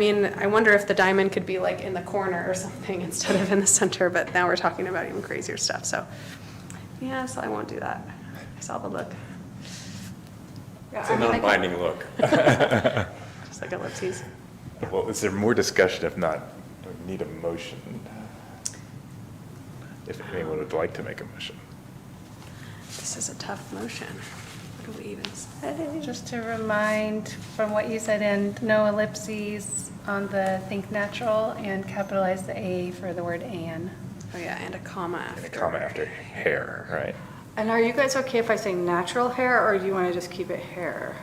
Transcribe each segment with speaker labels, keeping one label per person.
Speaker 1: I mean, I wonder if the diamond could be like in the corner or something instead of in the center, but now we're talking about even crazier stuff, so. Yeah, so I won't do that. I saw the look,
Speaker 2: Yeah,
Speaker 3: It's a
Speaker 2: I mean, I can-
Speaker 3: non-binding look.
Speaker 1: just like ellipses.
Speaker 4: Well, is there more discussion? If not, do we need a motion? If anyone would like to make a motion.
Speaker 1: This is a tough motion. What do we even say?
Speaker 2: Just to remind from what you said, and no ellipses on the think natural and capitalize the A for the word and.
Speaker 1: Oh, yeah, and a comma after.
Speaker 4: And a comma after hair, right?
Speaker 5: And are you guys okay if I say natural hair, or do you want to just keep it hair?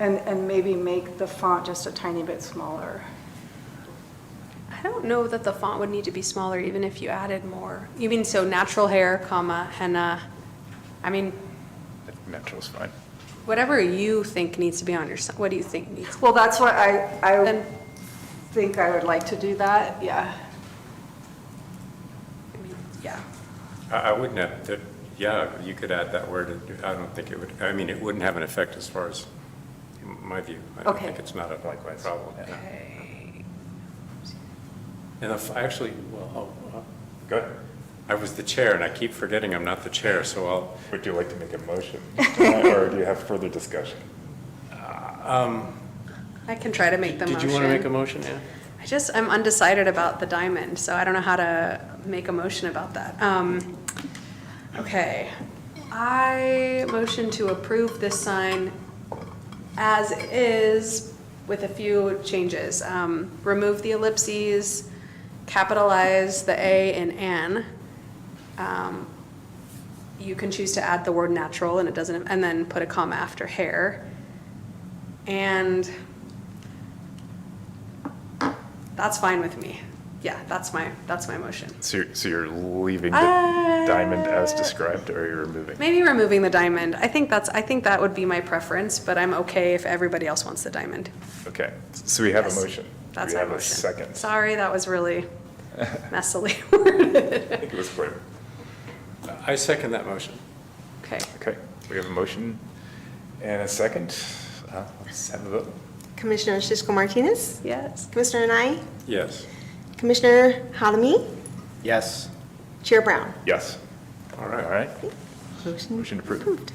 Speaker 5: And, and maybe make the font just a tiny bit smaller?
Speaker 1: I don't know that the font would need to be smaller even if you added more. You mean, so natural hair, comma, henna. I mean,
Speaker 4: Natural's fine.
Speaker 1: whatever you think needs to be on your, si- what do you think needs?
Speaker 5: Well, that's what I, I
Speaker 1: Then-
Speaker 5: think I would like to do that, yeah.
Speaker 1: I mean, Yeah.
Speaker 3: I I wouldn't have, that- yeah, you could add that word, I don't think it would, I mean, it wouldn't have an effect as far as my view. I don't
Speaker 5: Okay.
Speaker 3: think it's not a
Speaker 4: Likewise.
Speaker 3: problem. yeah. And if, actually, well, I'll- I'll-
Speaker 4: Go ahead.
Speaker 3: I was the chair, and I keep forgetting I'm not the chair, so I'll,
Speaker 4: Would you like to make a motion? Or do you have further discussion?
Speaker 1: I can try to make the motion.
Speaker 3: did you want to make a motion, Ann?
Speaker 1: I just, I'm undecided about the diamond, so I don't know how to make a motion about that. Um, okay. I motion to approve this sign as is with a few changes. Um, remove the ellipses, capitalize the A in an. Um, you can choose to add the word natural and it doesn't, and then put a comma after hair. And that's fine with me. Yeah, that's my, that's my motion.
Speaker 4: So you're, so you're leaving the
Speaker 1: Uh,
Speaker 4: diamond as described or you're removing?
Speaker 1: Maybe removing the diamond. I think that's, I think that would be my preference, but I'm okay if everybody else wants the diamond.
Speaker 4: Okay, so we have a
Speaker 1: Yes.
Speaker 4: motion. Do
Speaker 1: That's my
Speaker 4: We have a
Speaker 1: motion.
Speaker 4: second.
Speaker 1: Sorry, that was really messily worded.
Speaker 4: I think it was clear.
Speaker 3: I second that motion.
Speaker 1: Okay,
Speaker 4: Okay, we have a motion and a second. Uh, Let's have a vote.
Speaker 6: Commissioner Sisco Martinez,
Speaker 1: yes.
Speaker 6: Commissioner Nye,
Speaker 3: Yes.
Speaker 6: Commissioner Halimi,
Speaker 3: Yes.
Speaker 6: Chair Brown.
Speaker 4: Yes.
Speaker 3: All
Speaker 4: All
Speaker 3: right.
Speaker 4: right, motion approved.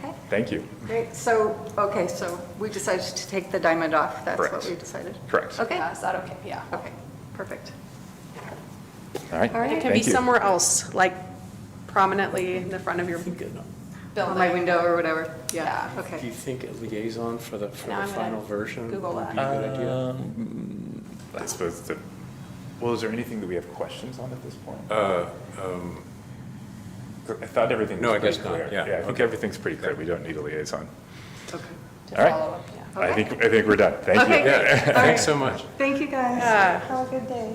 Speaker 5: Okay.
Speaker 4: Thank you.
Speaker 5: Great, so, okay, so we decided to take the diamond off, that's what
Speaker 4: Correct.
Speaker 5: we decided?
Speaker 4: Correct.
Speaker 5: Okay,
Speaker 1: Yeah, Is that okay? Yeah.
Speaker 5: okay, perfect.
Speaker 4: All right.
Speaker 1: All right, it can be
Speaker 4: Thank you.
Speaker 1: somewhere else, like prominently in the front of your building.
Speaker 5: On my window or whatever, yeah,
Speaker 1: Yeah.
Speaker 3: Do you
Speaker 5: okay.
Speaker 3: think a liaison for the, for
Speaker 1: Now
Speaker 3: the
Speaker 1: I'm gonna
Speaker 3: final version would be a
Speaker 1: Google
Speaker 3: good
Speaker 1: that.
Speaker 3: idea?
Speaker 4: I suppose the, well, is there anything that we have questions on at this point? I thought everything
Speaker 3: Uh, um, No,
Speaker 4: was
Speaker 3: I guess
Speaker 4: pretty
Speaker 3: not,
Speaker 4: clear.
Speaker 3: yeah,
Speaker 4: I think
Speaker 3: okay.
Speaker 4: everything's pretty clear. We don't need a liaison.
Speaker 5: Okay.
Speaker 1: To
Speaker 4: All right.
Speaker 1: follow up, yeah.
Speaker 4: I think, I think we're done. Thank
Speaker 5: Okay,
Speaker 4: you.
Speaker 5: great.
Speaker 3: Yeah, thanks so much.
Speaker 5: Thank you, guys.
Speaker 1: Yeah,
Speaker 6: Have a good day.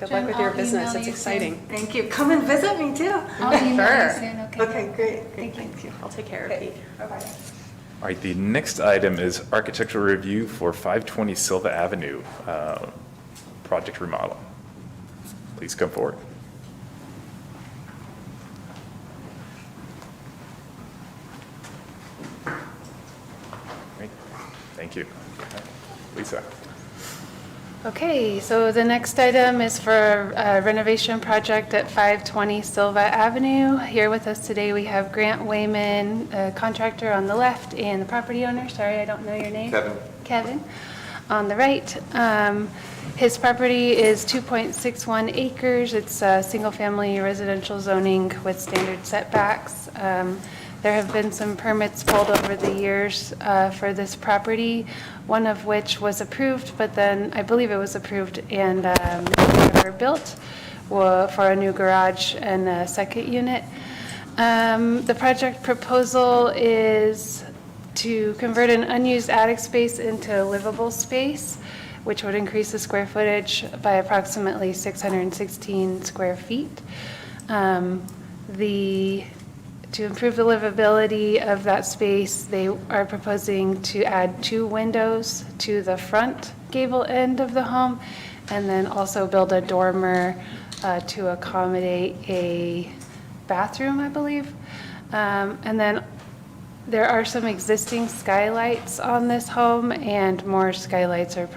Speaker 1: good luck with your
Speaker 2: Jen, I'll
Speaker 1: business,
Speaker 2: email
Speaker 1: it's
Speaker 2: you soon.
Speaker 1: exciting.
Speaker 5: Thank you, come and visit me too.
Speaker 2: I'll email you
Speaker 1: Sure.
Speaker 2: soon, okay?
Speaker 5: Okay, great,
Speaker 2: Thank you.
Speaker 1: I'll take care of you.
Speaker 4: All right, the next item is architectural review for 520 Silva Avenue, uh, project remodel. Please come forward. Great. Thank you. Lisa,
Speaker 2: Okay, so the next item is for uh, renovation project at 520 Silva Avenue. Here with us today, we have Grant Wayman, uh, contractor on the left, and the property owner, sorry, I don't know your name. Kevin. Kevin, on the right. Um, His property is 2.61 acres. It's a single-family residential zoning with standard setbacks. Um, There have been some permits pulled over the years uh, for this property, one of which was approved, but then, I believe it was approved and um, never built wa- for a new garage and a second unit. Um, The project proposal is to convert an unused attic space into livable space, which would increase the square footage by approximately 616 square feet. Um, The, to improve the livability of that space, they are proposing to add two windows to the front gable end of the home, and then also build a dormer uh, to accommodate a bathroom, I believe. Um, And then there are some existing skylights on this home, and more skylights are